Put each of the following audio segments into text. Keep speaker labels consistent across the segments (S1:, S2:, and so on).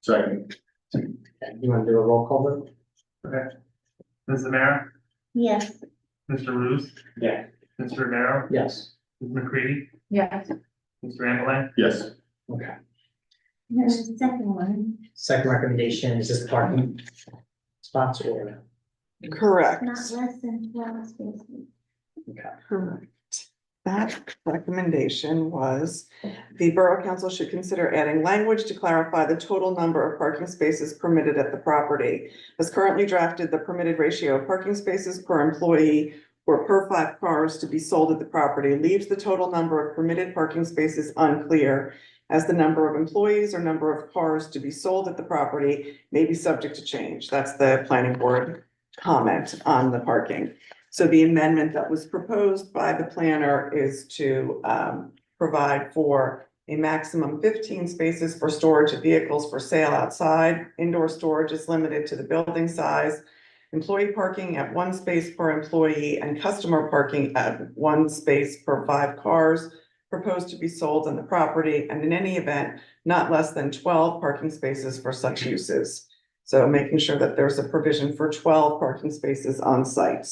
S1: Second.
S2: You want to do a roll call vote?
S3: Okay. Ms. Amer,
S4: Yes.
S3: Mr. Ruse,
S2: Yeah.
S3: Mr. Romero,
S2: Yes.
S3: Ms. McCready,
S4: Yes.
S3: Mr. Ambeline,
S1: Yes,
S2: Okay.
S4: There's a second one,
S2: Second recommendation is just parking spots or,
S5: Correct,
S4: not less than twelve spaces.
S5: correct. That recommendation was, the Borough Council should consider adding language to clarify the total number of parking spaces permitted at the property. As currently drafted, the permitted ratio of parking spaces per employee or per five cars to be sold at the property leaves the total number of permitted parking spaces unclear as the number of employees or number of cars to be sold at the property may be subject to change. That's the planning board comment on the parking. So the amendment that was proposed by the planner is to um, provide for a maximum fifteen spaces for storage of vehicles for sale outside. Indoor storage is limited to the building size. Employee parking at one space per employee and customer parking at one space per five cars proposed to be sold on the property and in any event, not less than twelve parking spaces for such uses. So making sure that there's a provision for twelve parking spaces on site.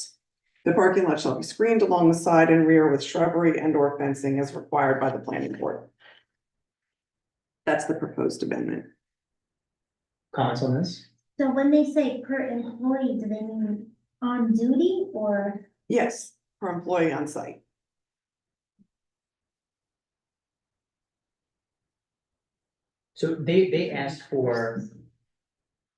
S5: The parking lot shall be screened along the side and rear with shrubbery and or fencing as required by the planning board. That's the proposed amendment.
S2: comments on this?
S4: So when they say per employee, do they mean on duty or?
S5: Yes, for employee on site.
S2: So they, they asked for,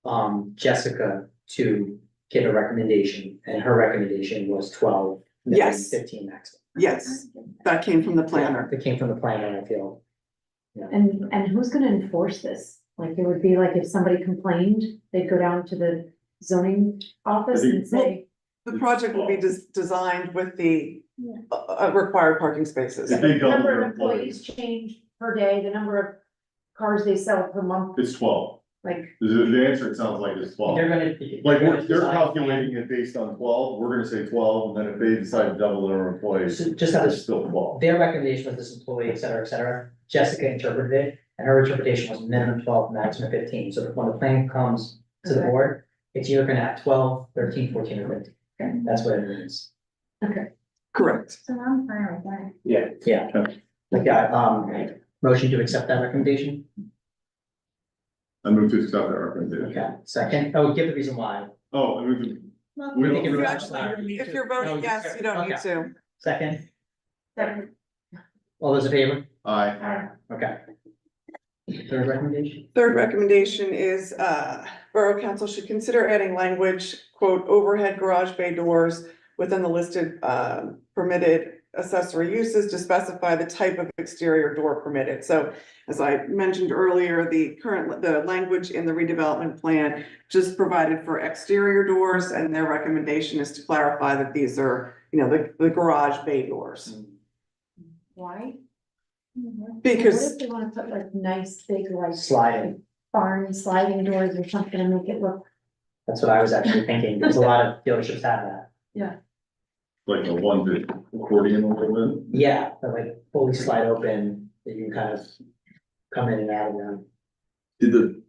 S2: um, Jessica to give a recommendation and her recommendation was twelve. maybe
S5: Yes.
S2: Fifteen maximum.
S5: Yes, that came from the planner.
S2: That came from the planner, I feel.
S6: And, and who's gonna enforce this? Like, it would be like if somebody complained, they'd go down to the zoning office and say,
S5: The project will be des- designed with the
S4: Yeah.
S5: uh, uh, required parking spaces.
S1: if they double
S6: number
S1: their
S6: of employees
S1: employees,
S6: change per day, the number of cars they sell per month,
S1: it's twelve.
S6: like,
S1: The, the answer, it sounds like it's twelve.
S2: They're gonna.
S1: Like,
S2: gonna
S1: we're- they're
S2: decide-
S1: calculating it based on twelve, we're gonna say twelve, and then if they decide to double their employees,
S2: So just how
S1: it's
S2: this,
S1: still twelve.
S2: their recommendation was this employee, et cetera, et cetera. Jessica interpreted it and her interpretation was minimum twelve, maximum fifteen. So when the plan comes to the
S6: Okay.
S2: board, it's either gonna have 12, 13, 14, or
S6: Okay.
S2: fifteen. That's what it means.
S5: Correct.
S4: So I'm fine with that.
S2: Yeah. Yeah. Like, yeah, um, motion to accept that recommendation?
S1: I move to accept that recommendation.
S2: Okay, second, oh, give the reason why.
S1: Oh, I move to,
S4: Well,
S1: We
S2: think it
S5: You
S2: was-
S5: actually- If you're voting yes, you don't need to.
S2: Second,
S6: that-
S2: all those in favor?
S1: aye,
S2: Okay. Third recommendation?
S5: Third recommendation is, uh, Borough Council should consider adding language, quote, overhead garage bay doors within the listed, uh, permitted accessory uses to specify the type of exterior door permitted. So as I mentioned earlier, the current, the language in the redevelopment plan just provided for exterior doors and their recommendation is to clarify that these are, you know, the, the garage bay doors.
S6: Mm. why?
S4: Mhm.
S6: What
S5: Because,
S6: if they wanna put like nice big like
S2: Sliding,
S6: barn sliding doors or something and make it look,
S2: that's what I was actually thinking, because a lot of dealerships have that.
S1: like the one that accordion a little bit.
S2: Yeah, but like fully slide open, that you kind of come in and out of them.
S1: Did the.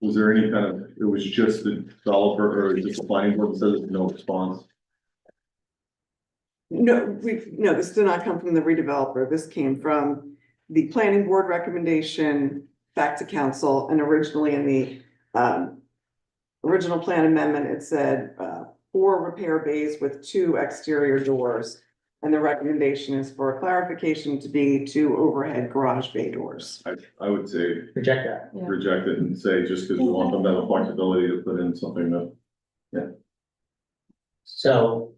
S1: Was there any kind of, it was just the developer or just the planning board that says no response?
S5: no, we, no, this did not come from the redeveloper. This came from the planning board recommendation back to council and originally in the, um, original plan amendment, it said, uh, four repair bays with two exterior doors. And the recommendation is for clarification to be two overhead garage bay doors.
S1: I, I would say
S2: Reject that.
S6: Yeah.
S1: reject it and say, just because we want them to have the flexibility to put in something that.
S2: So.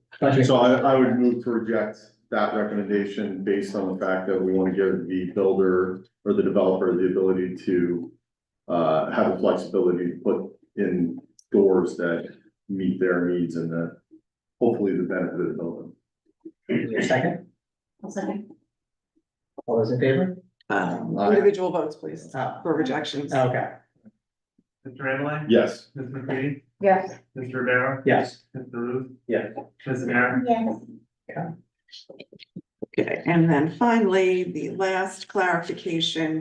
S1: So I, I would move to reject that recommendation based on the fact that we want to give the builder or the developer the ability to. Uh, have the flexibility to put in doors that meet their needs and that hopefully the benefit of the building.
S2: Second,
S6: I'll second.
S2: all those in favor?
S5: Um,
S2: Alright.
S5: individual votes, please,
S2: Oh,
S5: for rejections.
S2: okay,
S3: Mr. Ambeline,
S1: Yes.
S3: Ms. McCready,
S6: Yes,
S3: Mr. Romero,
S2: yes,
S3: Mr. Ruse.
S2: Yeah.
S3: Ms. Amer,
S4: Yes,
S5: Okay, and then finally, the last clarification